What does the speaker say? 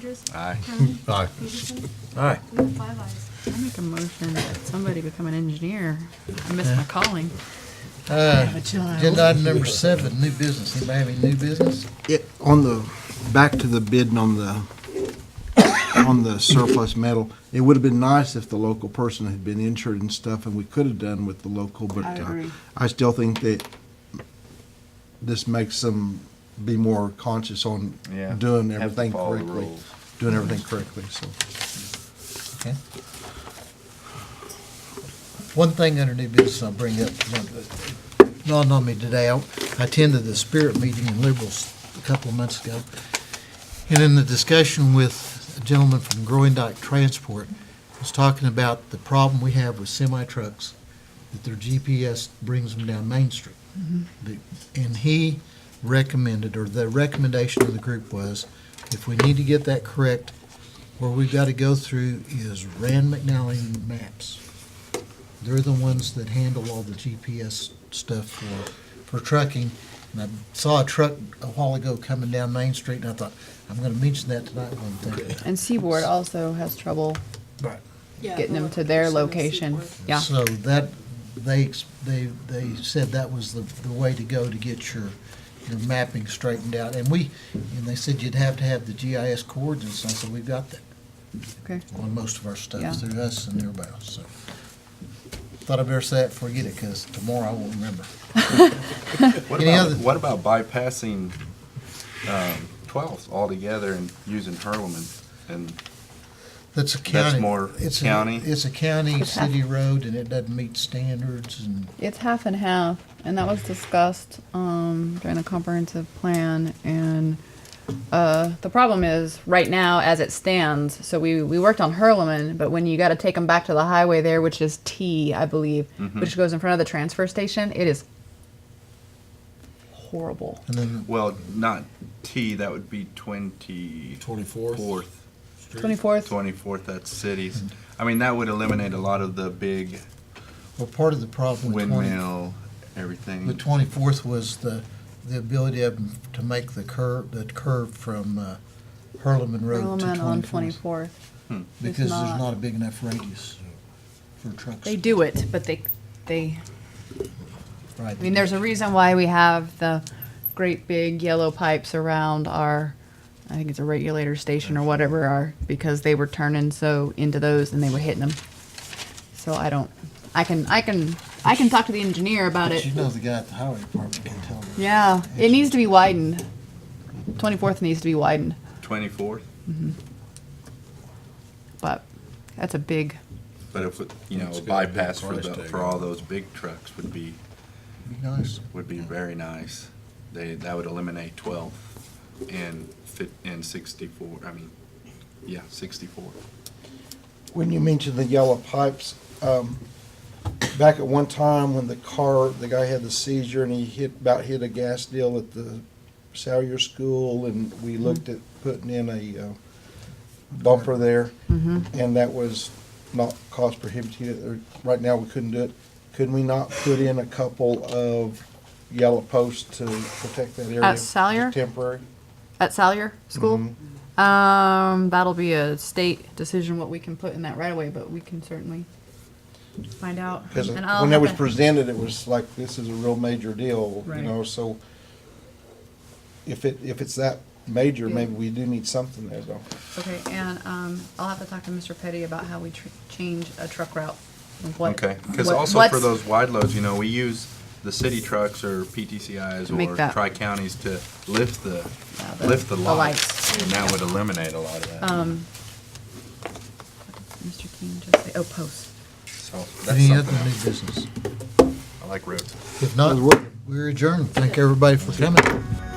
Andrews? Aye. Crowley? Aye. Peterson? Aye. We have five ayes. I make a motion that somebody become an engineer. I miss my calling. Uh, I'm a child. agenda item number seven, new business. Anybody have any new business? It, on the, back to the bidding on the, on the surplus metal, it would have been nice if the local person had been insured and stuff, and we could have done with the local, but. I uh, agree. I still think that this makes them be more conscious on Yeah. doing Have to everything follow the correctly. rules. Doing everything correctly, so. Okay. One thing under new business I'll bring up, dawned on me today, I I attended the spirit meeting in Liberals a couple of months ago. And in the discussion with a gentleman from Growing Dyke Transport, was talking about the problem we have with semi trucks, that their GPS brings them down Main Street. The- And he recommended, or the recommendation of the group was, if we need to get that correct, where we've got to go through is Rand McNally Maps. They're the ones that handle all the GPS stuff for, for trucking. And I saw a truck a while ago coming down Main Street, and I thought, I'm going to mention that tonight when I'm thinking about it. And Seaboard also has trouble Right. Yeah, getting the them to their of location. Seaport. Yeah. So that, they, ex- they, they said that was the, the way to go to get your, your mapping straightened out. And we, and they said you'd have to have the GIS coordinates, and I said, we've got that. Okay. on most of our Yeah. stuff through us and everybody else, so. Thought I better say it, before I forget it, because tomorrow I won't remember. What Any about, other- what about bypassing um, 12th altogether and using Hurleman? And, That's a county. more it's a- county? It's a county, It's half- city road, and it doesn't meet standards and, It's half and half, and that was discussed um, during the comprehensive plan. And uh, the problem is, right now, as it stands, so we, we worked on Hurleman, but when you got to take them back to the highway there, which is T, I believe, which goes in front of the transfer station, it is horrible. and then well, not T, that would be 24th. 24th. 24th, 24th, that's cities. I mean, that would eliminate a lot of the big well, part of the problem with twenty, windmill, everything. with twenty-fourth was the, the ability of them to make the curve, the curve from uh, Hurleman Road to Hurleman on twenty-fourth. 24th. It's Because there's not- not a big enough radius for trucks. They do it, but they, they, Right. I mean, there's a reason why we have the great big yellow pipes around our, I think it's a regulator station or whatever, are, because they were turning so into those and they were hitting them. So I don't, I can, I can, I can talk to the engineer about But it. you know the guy at the highway department can tell them. Yeah, it needs to be widened. Twenty-fourth needs to be widened, 24th, but that's a big, but if, it- you know, It's a got a big bypass for price the, tag for on all it. those big trucks would be, Be nice. would be very nice. They, that would eliminate 12th and fit, and 64, I mean, yeah, 64. When you mentioned the yellow pipes, um, back at one time when the car, the guy had the seizure and he hit, about hit a gas deal at the Salyer School and we Mm-hmm. looked at putting in a uh, bumper there. And that was not cost prohibitive, or right now we couldn't do it. Could we not put in a couple of yellow posts to protect that area? At Salyer? Just Temporary? at Salyer School? Um, that'll be a state decision what we can put in that right away, but we can certainly find out. Because And I'll when that have was to- presented, it was like, this is a real major deal, you Right. know, so if it, if it's that major, Yeah. maybe we do need something there though. Okay, and um, I'll have to talk to Mr. Petty about how we tr- change a truck route. and what- Okay, because what- also for what's- those wide loads, you know, we use the city trucks or PTCIs Make or that- tri-counties to lift the, Yeah, the- lift the the lights. And that would eliminate a lot of that. Um, Mr. King just say, oh, posts. So that's Any other something new else. business? I like roads. If not, we're adjourned. Thank everybody for coming.